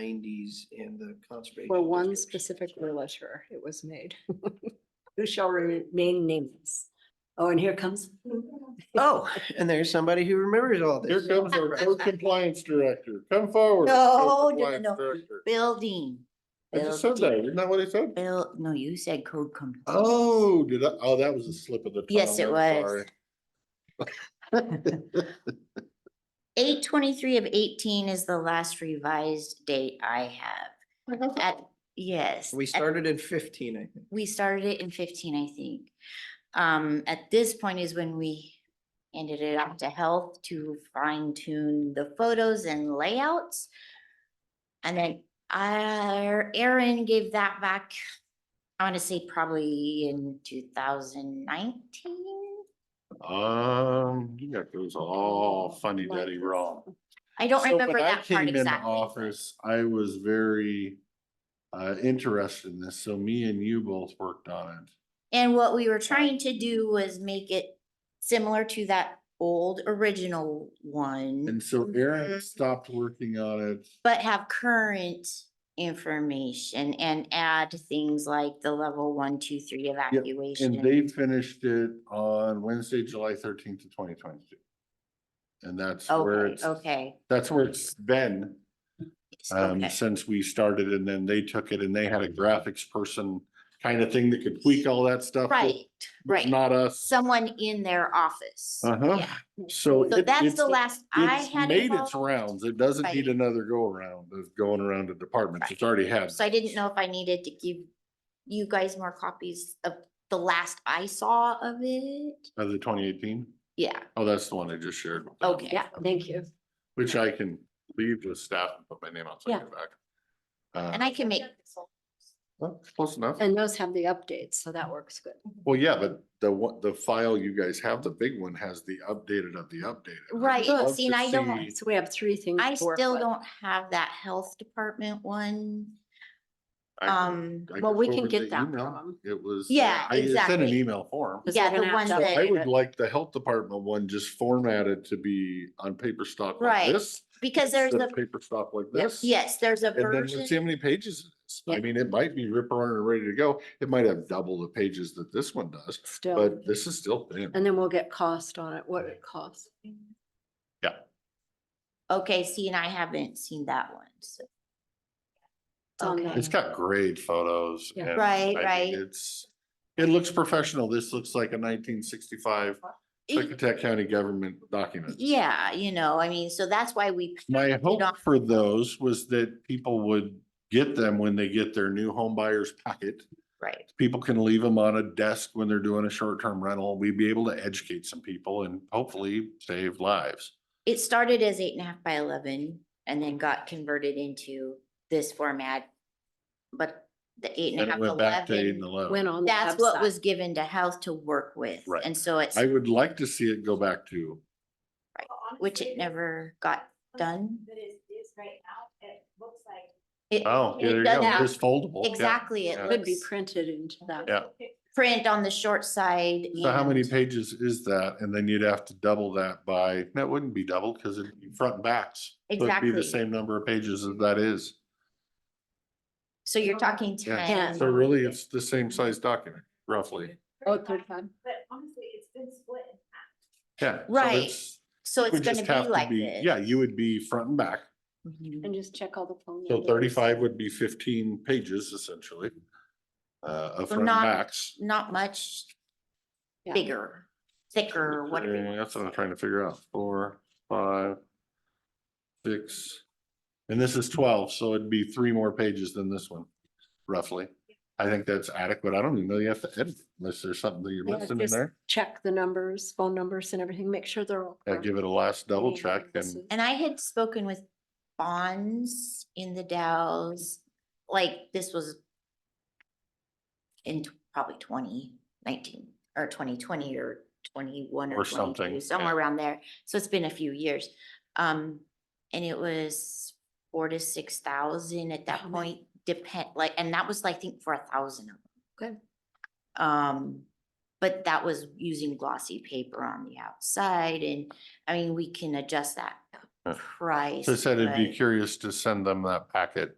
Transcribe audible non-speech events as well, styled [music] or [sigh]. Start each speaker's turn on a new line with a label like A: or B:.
A: nineties and the conservation.
B: For one
A: districts.
B: specific realtor, it was made.
C: [laughs] who shall remain nameless. Oh, and here comes.
D: [laughs]
A: Oh, and there's somebody who remembers all
E: Here
A: this.
E: comes our code compliance director. Come forward.
D: No,
E: code
D: no,
E: compliance
D: no.
E: director.
D: Building.
E: I just said that. Isn't that what I said?
D: Bill, no, you said code com.
E: Oh, did I? Oh, that was a slip of the tongue.
D: Yes, it
E: I'm
D: was.
E: sorry.
D: Eight twenty-three of eighteen is the last revised date I have. At, yes.
A: We
D: at-
A: started in fifteen, I think.
D: We started it in fifteen, I think. Um, at this point is when we ended it up to health to fine tune the photos and layouts. And then our Erin gave that back, I wanna say probably in two thousand nineteen.
E: Um, you got those all Oh, funny daddy wrong.
D: Oh, I don't
E: So when
D: remember
E: I
D: that
E: came
D: part
E: into
D: exactly.
E: Office, I was very uh interested in this, so me and you both worked on it.
D: And what we were trying to do was make it similar to that old original one,
E: And so Aaron
D: Mhm.
E: stopped working on it.
D: but have current information and add things like the level one, two, three
E: And
D: evacuation.
E: they finished it on Wednesday, July thirteenth of twenty twenty-two. And that's where
D: Okay,
E: it's,
D: okay.
E: that's where it's been
D: s-
E: um
D: okay.
E: since we started and then they took it and they had a graphics person kind of thing that could tweak all that stuff. but
D: Right, right.
E: Not us.
D: Someone in their office.
E: Uh-huh.
D: Yeah.
E: So
D: So
E: it-
D: that's
E: it's-
D: the last I
E: It's
D: had.
E: made
D: involved,
E: its rounds. It doesn't
D: Right.
E: need another go around of going around to departments. It's
D: Right.
E: already had.
D: So I didn't know if I needed to give you guys more copies of the last I saw of it.
E: Of the twenty eighteen?
D: Yeah,
E: Oh, that's the one I just shared. with them,
D: okay.
C: Yeah, thank you.
E: Which I can leave with staff and put my name on, so I get it back.
D: And
E: Uh,
D: I can make,
E: well, close enough.
C: And those have the updates, so that works good.
E: Well, yeah, but the one, the file you guys have, the big one has the updated of the updated. I'd
D: Right,
E: love
D: see,
E: to
D: and I don't-
E: see-
C: So we have three things.
D: I
C: to work
D: still
C: with.
D: don't have that health department one.
E: I can-
D: Um,
E: I can
C: well, we can
E: forward
C: get
E: the
C: that
E: email.
C: from 'em.
E: It was. uh,
D: Yeah,
E: I sent an
D: exactly.
E: email form.
C: Because
D: yeah,
C: they're
D: the
C: gonna have
D: one
C: to
D: that-
E: I
C: update
E: would
C: it.
E: like the health department one just formatted to be on paper stock like
D: Right,
E: this.
D: because there's
E: the
D: a,
E: Paper stock like this.
D: yes, there's a
E: And then let's see
D: version,
E: how many pages. it is. I
C: Yeah.
E: mean, it might be rip around and ready to go. It might have double the pages that this one does,
C: Still,
E: but this is still thin.
C: and then we'll get cost on it, what it costs.
D: okay, see, and I haven't seen that one, so.
C: It's on
D: Okay.
C: the-
E: It's got great photos.
C: Yeah.
E: and
D: Right,
E: I mean,
D: right.
E: It's, it looks professional. This looks like a nineteen sixty-five
D: E-
E: Clickatack County government document.
D: Yeah, you know, I mean, so that's why we,
E: My hope
D: off.
E: for those was that people would get them when they get their new home buyer's packet.
D: right,
E: people can leave them on a desk when they're doing a short-term rental. We'd be able to educate some people and hopefully save lives.
D: it started as eight and a half by eleven and then got converted into this format. But the eight and
E: And
D: a
E: it
D: half,
E: went back to eight and
D: eleven,
E: eleven.
C: Went on. the
D: that's what
C: website.
D: was given to health to work with,
E: Right.
D: and so it's,
E: I would like to see it go back to,
D: which it never got done.
F: That is, is right now, it looks like.
D: It-
E: oh, yeah,
D: it
E: there you
D: does
E: go,
D: have-
E: it's foldable. yeah.
D: Exactly, it
E: yeah.
C: Could be
D: looks-
C: printed into that.
E: Yeah.
D: print on the short side.
E: So how many
D: and-
E: pages is that? And then you'd have to double that by, that wouldn't be double because it'd be front and backs. So it'd Be
D: Exactly.
E: the same number of pages as that is.
D: So you're talking
E: Yeah.
D: ten.
E: So really, it's the same size document roughly.
C: Oh, third time.
F: But honestly, it's been split in half.
E: Yeah. so
D: Right.
E: it's-
D: So
E: it
D: it's
E: would
D: gonna
E: just
D: be
E: have to
D: like
E: be-
D: this.
E: Yeah, you would be front and back.
D: Mhm.
C: And just check all the phone.
E: So
C: numbers.
E: thirty-five would be fifteen pages essentially. Uh, of
D: So
E: front and
D: not-
E: backs.
D: Not much
C: Yeah.
D: bigger, thicker, whatever. you
E: Uh,
D: wanna
E: That's what I'm
D: say.
E: trying to figure out. Four, five, six. And this is twelve, so it'd be three more pages than this one, roughly. I think that's adequate. I don't even know you have to edit unless there's something that you're
C: Yeah,
E: missing in
C: just
E: there.
C: Check the numbers, phone numbers and everything, make sure they're all.
E: I
C: correct.
E: give it a last double
C: Yeah,
E: check
C: this
E: and
C: is-
D: And I had spoken with bonds in the Dows, like this was in tw- probably twenty nineteen or twenty twenty or twenty-one
E: Or
D: or
E: something,
D: twenty-two,
E: yeah.
D: somewhere around there. So it's been a few years. Um, and it was four to six thousand at that
C: Wow.
D: point, depend, like, and that was, I think, for a thousand of them.
C: Good.
D: Good. Um, but that was using glossy paper on the outside and, I mean, we can adjust that
E: Yeah.
D: price.
E: So I said I'd be
D: but-
E: curious to send them that packet